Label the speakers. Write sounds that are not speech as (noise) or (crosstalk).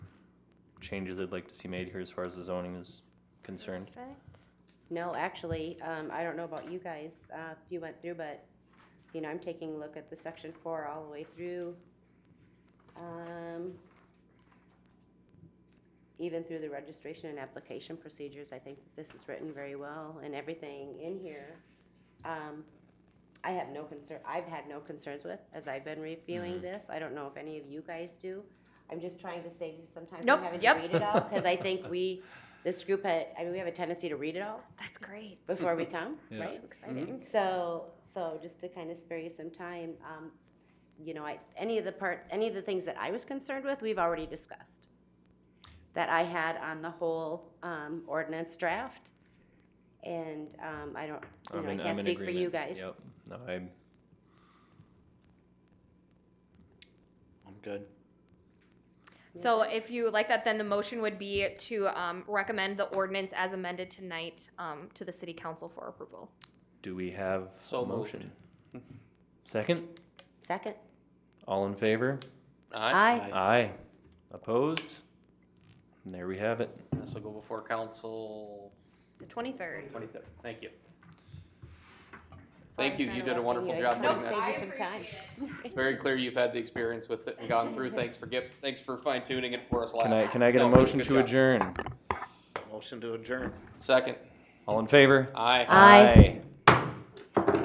Speaker 1: changes I'd like to see made here as far as the zoning is concerned.
Speaker 2: Perfect.
Speaker 3: No, actually, um, I don't know about you guys, uh, if you went through, but, you know, I'm taking a look at the section four all the way through. Um, even through the registration and application procedures, I think this is written very well and everything in here. Um, I have no concern, I've had no concerns with, as I've been reviewing
Speaker 1: Mhm.
Speaker 3: this. I don't know if any of you guys do. I'm just trying to save you some time
Speaker 2: Nope,
Speaker 3: from having to
Speaker 2: yep.
Speaker 3: read it all, cause I think we, this group had, I mean, we have a tendency to read it all
Speaker 2: That's great.
Speaker 3: before we come,
Speaker 1: Yeah.
Speaker 3: right?
Speaker 2: So exciting.
Speaker 3: So, so just to kind of spare you some time, um, you know, I, any of the part, any of the things that I was concerned with, we've already discussed. That I had on the whole, um, ordinance draft. And, um, I don't, you
Speaker 1: I'm
Speaker 3: know, I
Speaker 1: in-
Speaker 3: can't
Speaker 1: I'm in
Speaker 3: speak for you
Speaker 1: agreement.
Speaker 3: guys.
Speaker 1: Yep, no, I'm,
Speaker 4: I'm good.
Speaker 2: So if you like that, then the motion would be to um, recommend the ordinance as amended tonight um, to the city council for approval.
Speaker 1: do we have
Speaker 4: So
Speaker 1: a
Speaker 4: moved.
Speaker 1: motion? Second,
Speaker 3: Second,
Speaker 1: all in favor?
Speaker 3: Aye.
Speaker 1: Aye. Opposed? And there we have it.
Speaker 4: This will go before council
Speaker 2: The 23rd.
Speaker 4: twenty-third. Thank you.
Speaker 3: Sorry
Speaker 4: Thank you.
Speaker 3: for
Speaker 4: You did a
Speaker 3: interrupting
Speaker 4: wonderful
Speaker 3: you. I
Speaker 4: job
Speaker 3: just
Speaker 4: putting
Speaker 3: wanted
Speaker 4: that.
Speaker 3: to
Speaker 2: Nope,
Speaker 3: Save you
Speaker 2: I
Speaker 3: some time.
Speaker 4: (laughs)
Speaker 3: (laughs)
Speaker 4: Very clear you've had the experience with it and gone through. Thanks for get, thanks for fine tuning it for us last.
Speaker 1: Can I, can I get a
Speaker 4: No, good-
Speaker 1: motion
Speaker 4: good
Speaker 1: to
Speaker 4: job.
Speaker 1: adjourn?
Speaker 5: Motion to adjourn.
Speaker 4: Second.
Speaker 1: All in favor?
Speaker 4: Aye.
Speaker 3: Aye.